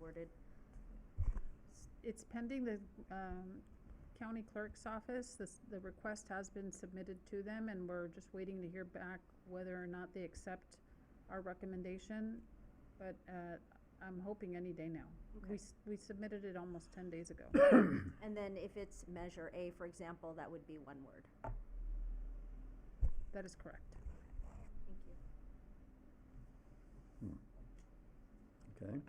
worded. It's pending the um, county clerk's office. This- The request has been submitted to them, and we're just waiting to hear back whether or not they accept our recommendation. But uh, I'm hoping any day now. We Okay. s- we submitted it almost 10 days ago. And then if it's measure A, for example, that would be one word. That is correct. Thank you. Hmm. Okay,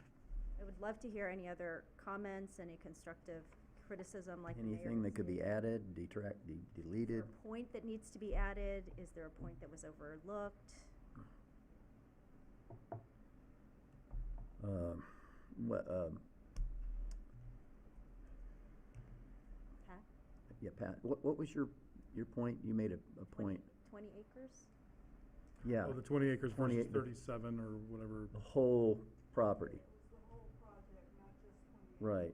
I would love to hear any other comments, any constructive criticism like the mayor anything that has could be made. added, detract, de- Is there deleted, a point that needs to be added? Is there a point that was overlooked? um, what, um, Pat, yeah, Pat, what, what was your, your point? You made a, a point, twenty acres? yeah, Oh, the twenty acres 28, versus the- thirty-seven or whatever. the whole property. Right.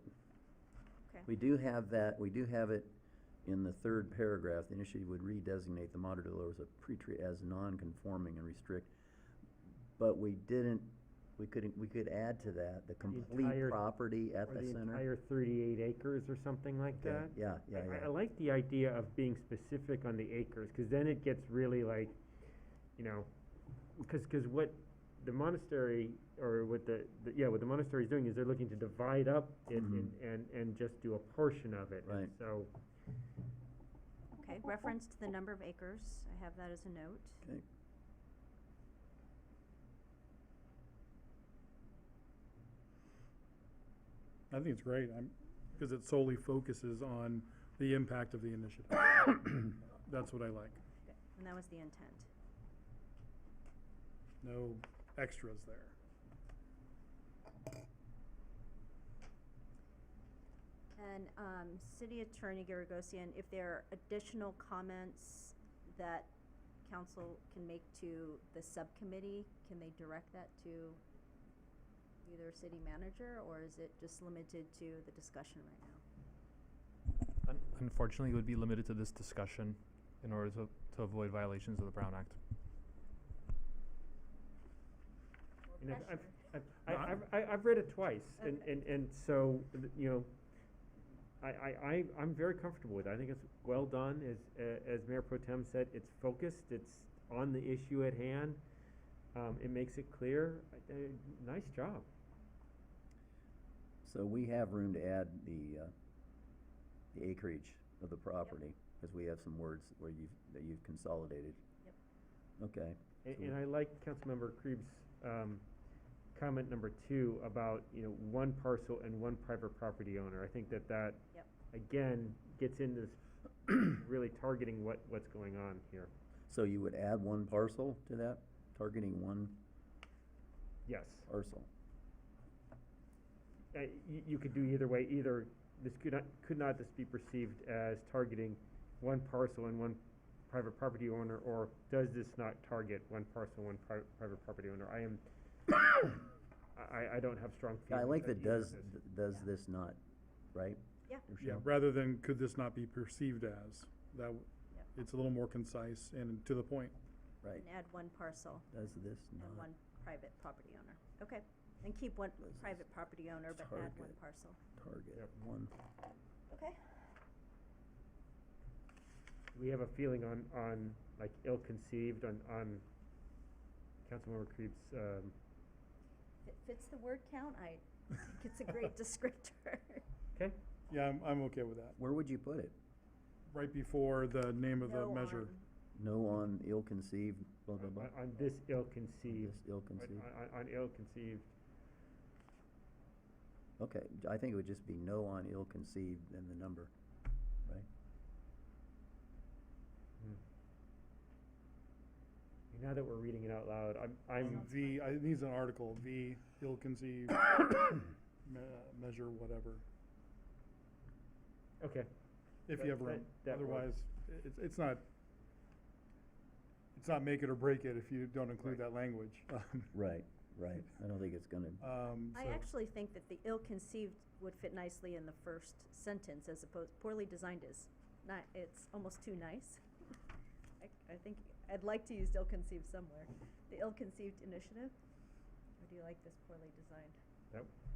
Okay. We do have that, we do have it in the third paragraph, the initiative would redesignate the modern Delores a pre-treat as non-conforming and restrict. But we didn't, we couldn't, we could add to that, the complete entire- property at Or the the center. entire thirty-eight acres or something like Okay, that. Yeah, yeah, I- I- I yeah, like the idea of being specific on the acres, because then it gets really like, you know, because, because what the monastery, or what the, the- yeah, what the monastery is doing is they're looking to divide up it and, and, and just do a portion of it. and Mm-hmm. Right. So, Okay, reference to the number of acres, I have that as a note. okay, I think it's great, I'm, because it solely focuses on the impact of the initiative. That's what I like. Good, And that was the intent. No extras there. And um, City Attorney Garagosian, if there are additional comments that council can make to the subcommittee, can they direct that to either city manager, or is it just limited to the discussion right now? Un- Unfortunately, it would be limited to this discussion in order to, to avoid violations of the Brown Act. you know, I've, I've, No, I- I- I've, I- I've read it twice, and, Okay. and, and so, th- you know, I, I, I, I'm very comfortable with it. I think it's well done, as, uh, as Mayor Pro Tem said, it's focused, it's on the issue at hand. Um, it makes it clear, I- I- nice job. so we have room to add the, uh, the acreage of the property, cause we have some words where you've, that you've consolidated. Yep. Okay, And, So- and I like Councilmember Krebs' um, comment number two about, you know, one parcel and one private property owner. I think that that, Yep. again, gets into this really targeting what, what's going on here. so you would add one parcel to that, targeting one Yes. parcel? Uh, you, you could do either way, either, this could not, could not just be perceived as targeting one parcel and one private property owner, or does this not target one parcel, one pri- private property owner? I am, I, I don't have strong Yeah, feelings. I like on that either of does, this. th- does Yeah. this not, right? Yeah. Yeah, Rochelle? rather than could this not be perceived as, that, w- Yep. it's a little more concise and to the point. Right, And add one parcel does this and not one private property owner. Okay, and keep one private property owner, but add one Target. parcel. target Yep. one? Okay, we have a feeling on, on, like, ill-conceived, on, on Councilmember Creep's, um, it fits the word count, I think it's a great descriptor. okay? Yeah, I'm, I'm okay with that. Where would you put it? Right before the name of the No um, measure. arm. No on ill-conceived, blah, blah, On, blah? on this ill-conceived, Just on, ill-conceived? on- on ill-conceived, Okay, I think it would just be no on ill-conceived and the number, right? now Hmm. that we're reading it out loud, I'm, I'm, V, I, it needs an article, V, ill-conceived, me- measure, whatever, okay. if That- you have that- room. that works. Otherwise, i- it's, it's not, it's not make it or break it if you don't include that language. Um, Right, right. I don't think it's gonna, Um, I so- actually think that the ill-conceived would fit nicely in the first sentence as opposed, poorly designed is not, it's almost too nice. I, I think, I'd like to use ill-conceived somewhere. The ill-conceived initiative? Or do you like this poorly designed? That,